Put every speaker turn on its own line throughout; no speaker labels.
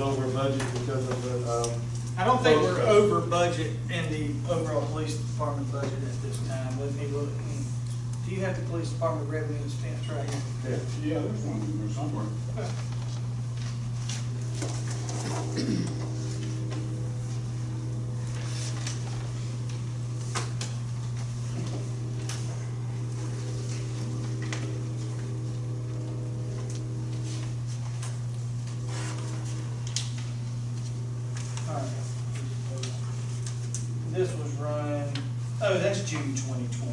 over budget because of the, um.
I don't think we're
Both.
over budget in the overall police department budget at this time, let me look. Do you have the police department revenue and expense right here?
Yeah.
Yeah, there's one in there somewhere.
All right. This was run, oh, that's June twenty twenty.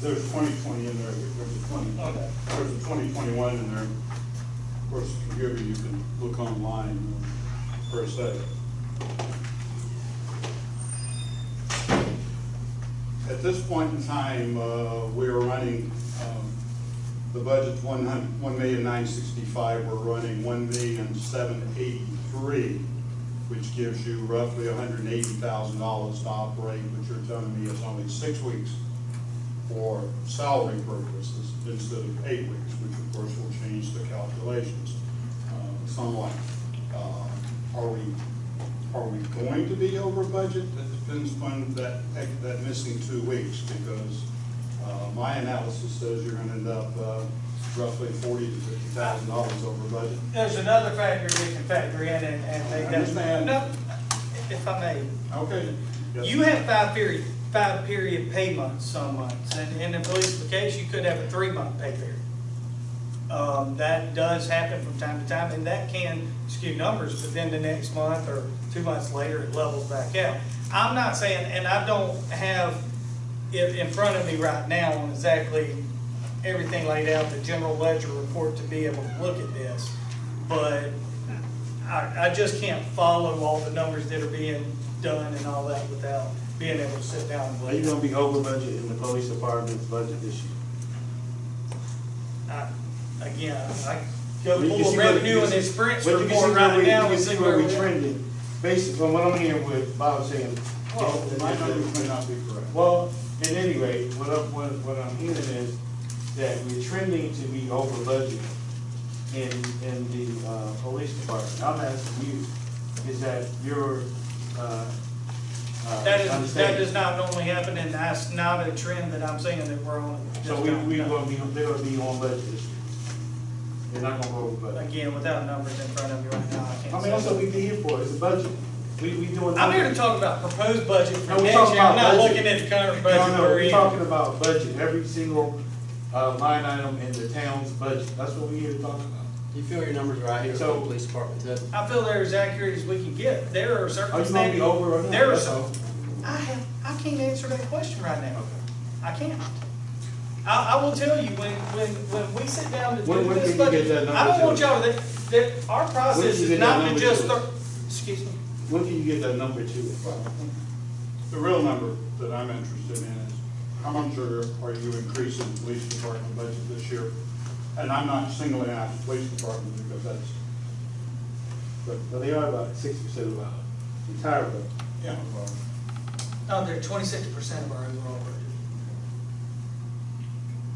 There's twenty twenty in there, there's a twenty,
Okay.
there's a twenty twenty-one in there. Of course, if you ever, you can look online uh, per se. At this point in time, uh, we are running, um, the budget's one hun, one million nine sixty-five, we're running one million seven eighty-three, which gives you roughly hundred and eighty thousand dollars to operate, but you're telling me it's only six weeks for salary purposes instead of eight weeks, which of course will change the calculations uh, somewhat. Uh, Are we, are we going to be over budget? That depends upon that, that missing two weeks, because uh, my analysis says you're gonna end up uh, roughly forty to fifty thousand dollars over budget.
There's another factor we can factor in and, and
I
take that.
understand.
No, if I may,
Okay. Yes.
You have five period, five period pay months some months, and in the police case, you could have a three-month pay period. Um, that does happen from time to time, and that can skew numbers, but then the next month or two months later, it levels back out. I'm not saying, and I don't have it in front of me right now on exactly everything laid out, the general ledger report to be able to look at this, but I, I just can't follow all the numbers that are being done and all that without being able to sit down and
Are you
look.
gonna be over budget in the police department's budget this year?
I- Again, I go
You
pull
see
the
what-
revenue
you
and
see-
expense
but you can see
report
where
right
we-
now
You
and
can see where we trending, based on what I'm hearing with Bob saying.
Well, my numbers may not be correct.
Well, at any rate, what I'm, what, what I'm hearing is that we're trending to be over budget in, in the, uh, police department. I'm asking you, is that your, uh, uh,
That is, that
understanding?
does not normally happen, and that's not a trend that I'm saying that we're on. at
So
this
we,
time.
we gonna be, they're gonna be on budget this year. They're not gonna go over budget.
Again, without numbers in front of me right now, I
I
can't
mean,
say.
that's what we be here for, is the budget. We, we doing.
I'm here to talk about proposed budget
No,
for
we're
next
talking
year, I'm
about
not
budget.
looking at the current budget.
No, no,
we're
we're
in.
talking about budget, every single, uh, line item in the town's budget. That's what we here to talk about.
You feel your numbers right here,
So-
so police department, that,
I feel they're as accurate as we can get. There are
Are you gonna be
circumstances.
over or not?
There are
That's
some,
all.
I have, I can't answer that question right now. I can't. I, I will tell you, when, when, when we sit down to
When-
do
when
this,
can you
but
get that
I don't
number
want
to
y'all, that, that, our
When
process
can you get
is
that
not to
number
just,
to us?
throw- excuse me.
When can you get that number to us?
The real number that I'm interested in is, how much are, are you increasing the police department budget this year? And I'm not singling out the police department because that's,
But, but they are about sixty percent of our entire budget.
you know, uh,
No, they're twenty-six percent of our overall budget.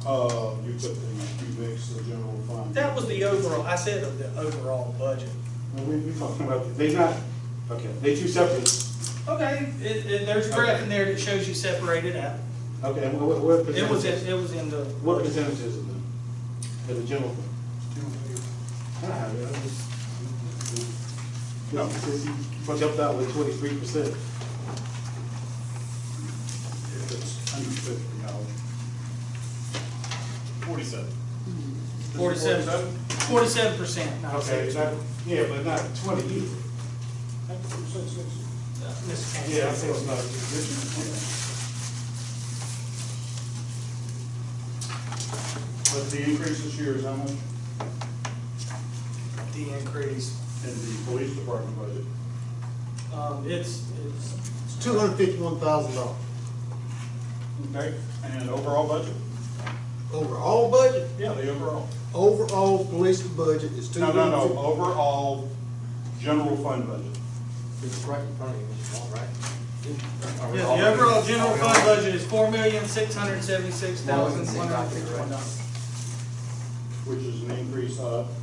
uh, you put the, you mix the general fund.
That was the overall, I said of the overall budget.
Now, We, we talking about, they not, okay, they two separate.
Okay, it, it, there's a graph in there that shows you separated out.
Okay, and what, what
It
percentage?
was, in- it was in the.
What percentage is it then? Of the general fund? I don't have it, I just. No, since you jumped out with twenty-three percent.
If it's under fifty dollars. Forty-seven.
Forty-seven, forty-seven percent.
Okay, not, yeah, but not twenty either.
Uh, Mr. Kane.
Yeah, I think it's not, this
But the increase this year is how much in
The increase,
the police department budget?
um, it's, it's,
It's two hundred fifty-one thousand dollars.
Okay. And overall budget?
Overall budget,
Yeah, the overall.
overall police budget is two
No, no, no,
hundred
overall general fund budget.
it's right in front of you, Mr. Paul, right? Are we
yeah,
all-
the overall general
are we all-
fund budget is four million, six hundred seventy-six thousand, one hundred fifty-one dollars.
which is an increase of